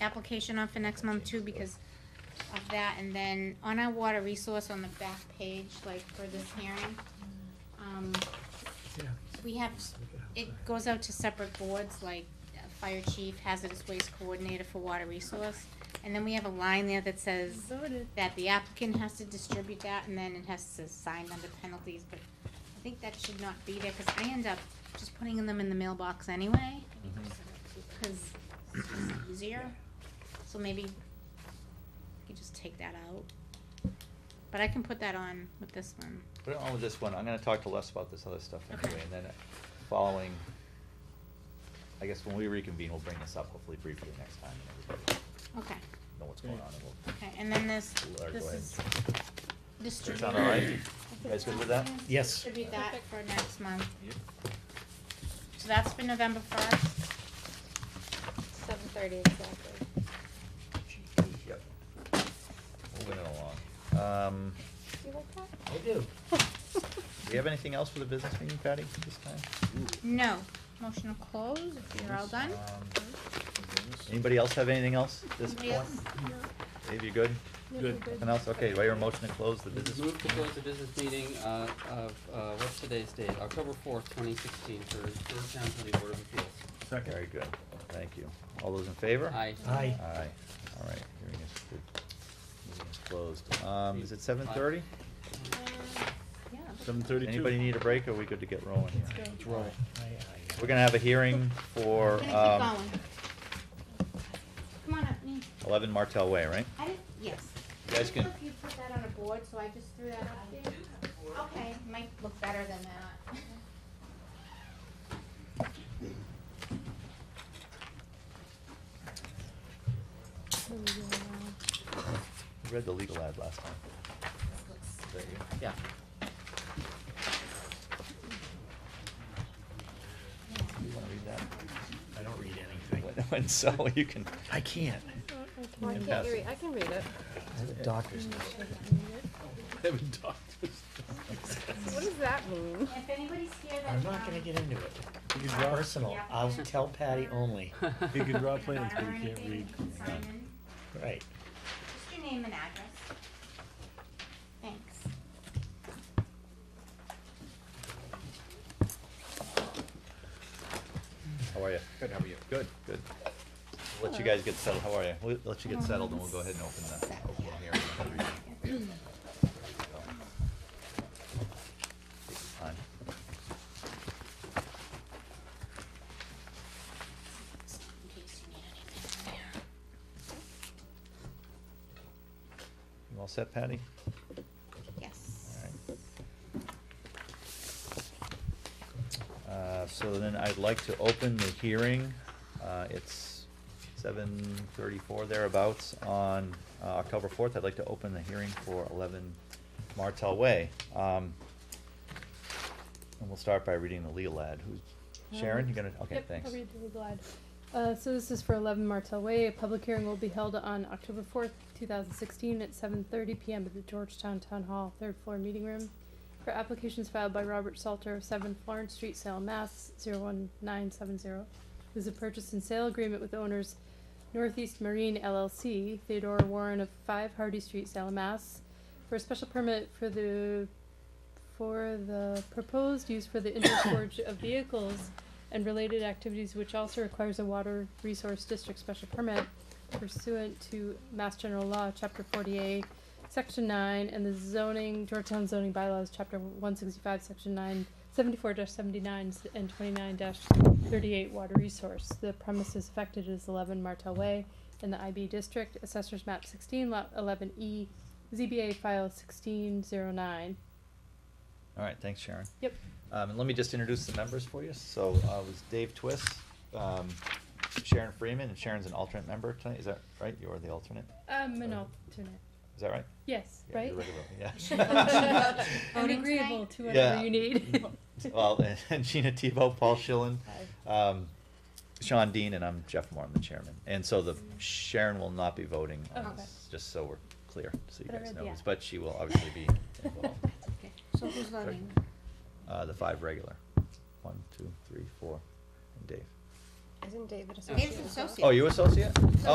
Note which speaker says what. Speaker 1: application on for next month too, because of that, and then on our water resource on the back page, like for this hearing, um,
Speaker 2: Yeah.
Speaker 1: we have, it goes out to separate boards, like uh, fire chief, hazardous waste coordinator for water resource, and then we have a line there that says that the applicant has to distribute that, and then it has to sign under penalties, but I think that should not be there, cause I end up just putting them in the mailbox anyway, cause it's just easier, so maybe you could just take that out. But I can put that on with this one.
Speaker 3: Put it on with this one, I'm gonna talk to Les about this other stuff
Speaker 1: Okay.
Speaker 3: anyway, and then following, I guess when we reconvene, we'll bring this up hopefully briefly next time, and everybody
Speaker 1: Okay,
Speaker 3: know what's going on, and we'll,
Speaker 1: okay, and then this,
Speaker 3: Laura, go
Speaker 1: this
Speaker 3: ahead.
Speaker 1: is
Speaker 3: does that
Speaker 1: distributed.
Speaker 3: sound all right? You guys good with that?
Speaker 2: Yes.
Speaker 1: Distribute that for next month. So that's for November first.
Speaker 4: Seven thirty exactly.
Speaker 3: Yep. Moving it along. Um,
Speaker 4: Do you like that?
Speaker 2: I do.
Speaker 3: do we have anything else for the business meeting, Patty, this time?
Speaker 1: No, motion to close, if you're all done.
Speaker 3: Anybody else have anything else at this
Speaker 1: Anybody
Speaker 3: point?
Speaker 1: else?
Speaker 3: Dave, you good?
Speaker 2: Good.
Speaker 3: Nothing else? Okay, do I hear a motion to close the business?
Speaker 5: Move to close the business meeting uh, of, uh, what's today's date? October fourth, twenty sixteen, for the Town County Board of Appeals.
Speaker 3: Very good, thank you. All those in favor?
Speaker 5: Aye.
Speaker 2: Aye.
Speaker 3: Aye, all right, hearing is, good. meeting is closed. Um, is it seven thirty?
Speaker 1: Um, Yeah.
Speaker 6: Seven thirty-two.
Speaker 3: Anybody need a break, or are we good to get rolling here?
Speaker 5: Let's roll.
Speaker 2: Aye, aye.
Speaker 3: We're gonna have a hearing for,
Speaker 1: We're gonna
Speaker 3: um,
Speaker 1: keep going. Come on up, Nate.
Speaker 3: eleven Martel Way, right?
Speaker 1: I didn't, yes.
Speaker 3: You guys can-
Speaker 1: If you put that on a board, so I just threw that up there. Okay, might look better than that.
Speaker 3: I Read the legal ad last time. There you go.
Speaker 5: Yeah.
Speaker 3: You wanna read that?
Speaker 2: I don't read anything.
Speaker 3: And so you can,
Speaker 2: I can't.
Speaker 4: Why
Speaker 3: Yeah.
Speaker 4: can't you read, I can read it.
Speaker 2: That's a doctor's note.
Speaker 6: I have a doctor's.
Speaker 4: What does that mean?
Speaker 1: If anybody's here that. um,
Speaker 2: I'm not gonna get into it. Personal, I'll tell Patty only.
Speaker 6: You can draw
Speaker 1: Your
Speaker 6: plans, but
Speaker 1: daughter or
Speaker 6: you can't
Speaker 1: anything,
Speaker 6: read.
Speaker 1: you can sign in.
Speaker 2: Right.
Speaker 1: Just your name and address. Thanks.
Speaker 3: how are you?
Speaker 6: Good, how are you?
Speaker 3: Good, good. We'll Let you guys get settled, how are you? We'll let you get settled, and we'll go ahead and open the, open the hearing. Take your time.
Speaker 1: In case you need anything from there.
Speaker 3: You all set, Patty?
Speaker 1: Yes.
Speaker 3: Uh, So then I'd like to open the hearing. Uh, It's seven thirty-four thereabouts on uh, October fourth. I'd like to open the hearing for eleven Martel Way. Um, And we'll start by reading the legal ad. Who's, Sharon, you gonna, okay,
Speaker 7: Um, Yep,
Speaker 3: thanks.
Speaker 7: I'll read the legal ad. Uh, so this is for eleven Martel Way. A public hearing will be held on October fourth, two thousand sixteen, at seven thirty PM at the Georgetown Town Hall, third floor meeting room. For applications filed by Robert Salter, seven Florence Street, Salem, Mass, 01970. This is a purchase and sale agreement with owners Northeast Marine LLC, Theodore Warren of five Hardy Street, Salem, Mass, for a special permit for the for the proposed use for the indoor storage of vehicles and related activities, which also requires a water resource district special permit pursuant to Mass General Law, Chapter forty-eight, Section nine, and the zoning, Georgetown zoning bylaws, Chapter one sixty-five, Section nine, seventy-four dash seventy-nine s- and twenty-nine dash thirty-eight water resource. The premises affected is eleven Martel Way in the IB district, Assessors Map sixteen, Lot eleven E, ZBA file sixteen zero nine.
Speaker 3: All right, thanks, Sharon.
Speaker 7: Yep.
Speaker 3: Um, and let me just introduce the members for you. So, uh, it was Dave Twist, um, Sharon Freeman, and Sharon's an alternate member tonight. Is that right? You're the alternate?
Speaker 7: Um, an
Speaker 3: Sorry.
Speaker 7: alternate.
Speaker 3: Is that right?
Speaker 7: Yes,
Speaker 3: Yeah,
Speaker 7: right?
Speaker 3: you're regular, Yeah.
Speaker 7: I'm
Speaker 1: Voting
Speaker 7: agreeable
Speaker 1: tonight?
Speaker 7: to whatever
Speaker 3: Yeah.
Speaker 7: you need.
Speaker 3: Well, eh. and Gina Tebow, Paul Schillen, um, Sean Dean, and I'm Jeff Moore, I'm the chairman. And so the Sharon will not be voting on
Speaker 7: Oh, Okay.
Speaker 3: this, just so we're clear, so you
Speaker 7: But I
Speaker 3: guys
Speaker 7: read
Speaker 3: know.
Speaker 7: the
Speaker 3: this,
Speaker 7: ad.
Speaker 3: But she will obviously be involved.
Speaker 1: Okay, so who's voting?
Speaker 3: Uh, the five regular. One, two, three, four, and Dave.
Speaker 4: Isn't David
Speaker 1: Dave's
Speaker 4: associated? as well?
Speaker 1: associate.
Speaker 3: Oh, you associate?